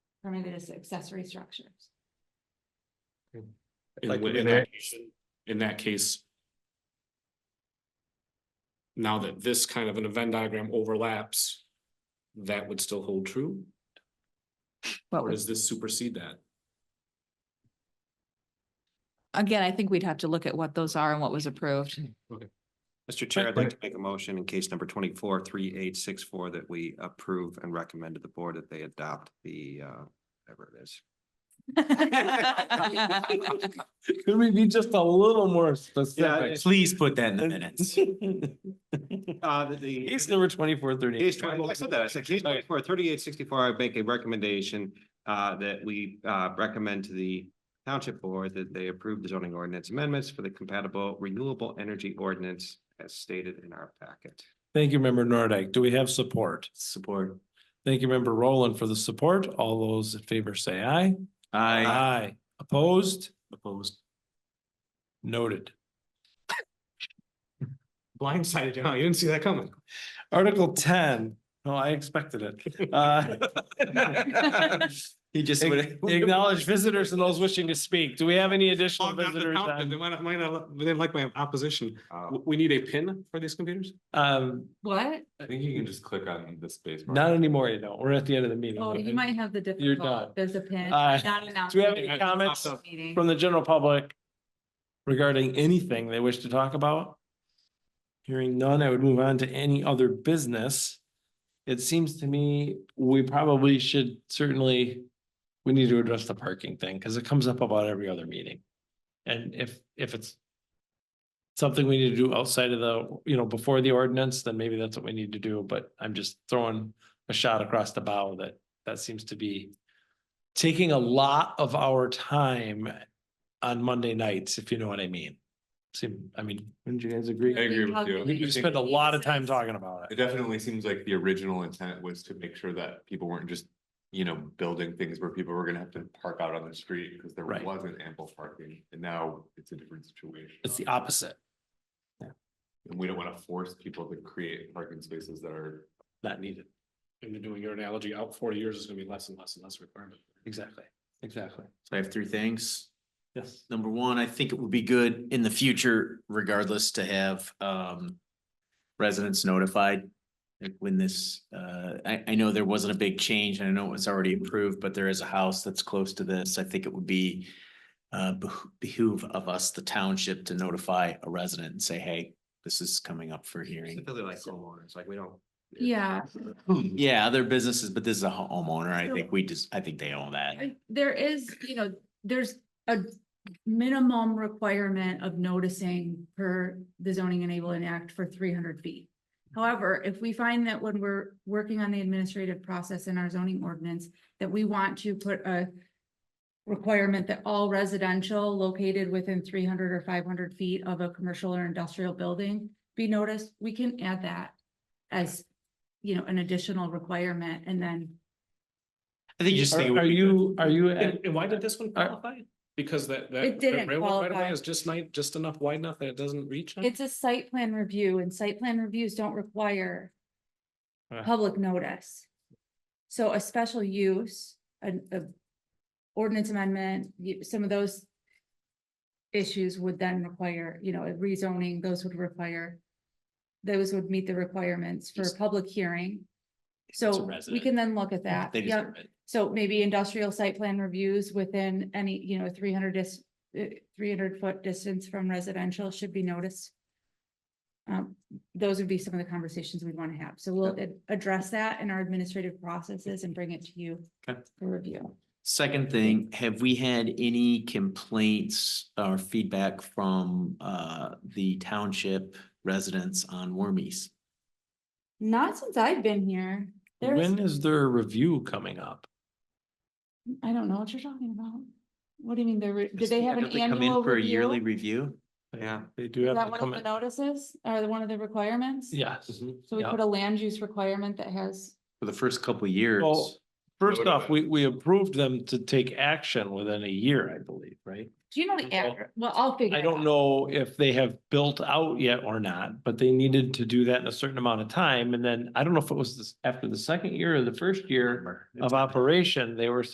or maybe just accessory structures. In Like wh- an in that, application. in that case. Now that this kind of an event diagram overlaps, that would still hold true, What or was, does this supersede that? again, I think we'd have to look at what those are and what was approved. Mr. Chair, I'd like to make a motion in case number twenty-four, three, eight, six, four, that we approve and recommend to the board that they adopt the, uh, whatever it is. Could we be just a little more Yeah, specific? Please put that in the minutes. Uh, the- the. Case number twenty-four Case thirty-eight. twenty, I said that, I said case twenty-four, thirty-eight, sixty-four, I make a recommendation uh that we uh recommend to the township board that they approve the zoning ordinance amendments for the compatible renewable energy ordinance as stated in our packet. Thank you, member Nordike. Do we have support? Support. Thank you, member Roland, for the support. All those in favor say aye. I Aye. Opposed? opposed. Noted. Blindsided, you, huh? You didn't see that coming. Article ten. No, I expected it. Uh, He just ac- Acknowledge visitors and those wishing to speak. Do we have any additional Oh, not the visitors? township. They on- might not, might not, they didn't like my opposition. Uh, W- We need a pin for these computers? Um, What? I think you can just click on the space. bar. not anymore, you know. We're at the end of the meeting. Oh, you might have the You're done. difficult, there's a pin. Uh, not announced do we have any meeting. comments Meeting. from the general public regarding anything they wish to talk about? Hearing none, I would move on to any other business. It seems to me we probably should certainly, we need to address the parking thing because it comes up about every other meeting. And if, if it's something we need to do outside of the, you know, before the ordinance, then maybe that's what we need to do. But I'm just throwing a shot across the bow that that seems to be taking a lot of our time on Monday nights, if you know what I mean. Seem, I mean, wouldn't you guys agree? I agree with you. Calculate. You I think spend a lot of time talking about It it. definitely seems like the original intent was to make sure that people weren't just, you know, building things where people were gonna have to park out on the street because there Right. wasn't ample parking. And now it's a different situation. It's the opposite, And we don't want to force people to create parking spaces that are not needed. And then doing your analogy, out forty years is gonna be less and less and less requirement. Exactly, exactly. I have three things. Yes. Number one, I think it would be good in the future regardless to have um residents notified. Like when this, uh, I I know there wasn't a big change and I know it was already approved, but there is a house that's close to this. I think it would be uh behoo- behoove of us, the township, to notify a resident and say, hey, this is coming up for hearing. Specifically like homeowners, like we don't. Yeah. Yeah, other businesses, but this is a ho- homeowner. I think we just, I think they own that. I- There is, you know, there's a minimum requirement of noticing per the zoning enabling act for three hundred feet. However, if we find that when we're working on the administrative process in our zoning ordinance, that we want to put a requirement that all residential located within three hundred or five hundred feet of a commercial or industrial building be noticed, we can add that as, you know, an additional requirement and then I think you just think. it Are would are be good. you, are you, And, at- and why did this one Uh, qualify? Because that, that. It didn't railroad right of way qualify. Is just night, just enough wide enough that it doesn't reach. them? It's a site plan review and site plan reviews don't require Uh. public notice. So a special use, an, a ordinance amendment, you- some of those issues would then require, you know, a rezoning, those would require, those would meet the requirements for a Just- public hearing. a So we resident. can then look at that. They just Yep. do it. So maybe industrial site plan reviews within any, you know, three hundred dis, uh, three hundred foot distance from residential should be noticed. Um, those would be some of the conversations we'd want to have. So we'll ad- address that in our administrative processes and bring it to you Okay. for review. Second thing, have we had any complaints or feedback from uh the township residents on Wormies? Not since I've been here. There's, when is their review coming up? I don't know what you're talking about. What do you mean? They're, re- did they have an Don't come in annual For a yearly review? review? Yeah. They do Is have that to one of come the in. notices or the- one of the requirements? Yes. Mm-hmm. So we yeah. put a land use requirement that has, For the first couple of years, Well, first Noted. off, we, we approved them to take action within a year, I believe, right? do you know the, address? well, I'll figure. I it don't out. know if they have built out yet or not, but they needed to do that in a certain amount of time. And then I don't know if it was this, after the second year or the first year remember. of operation, they were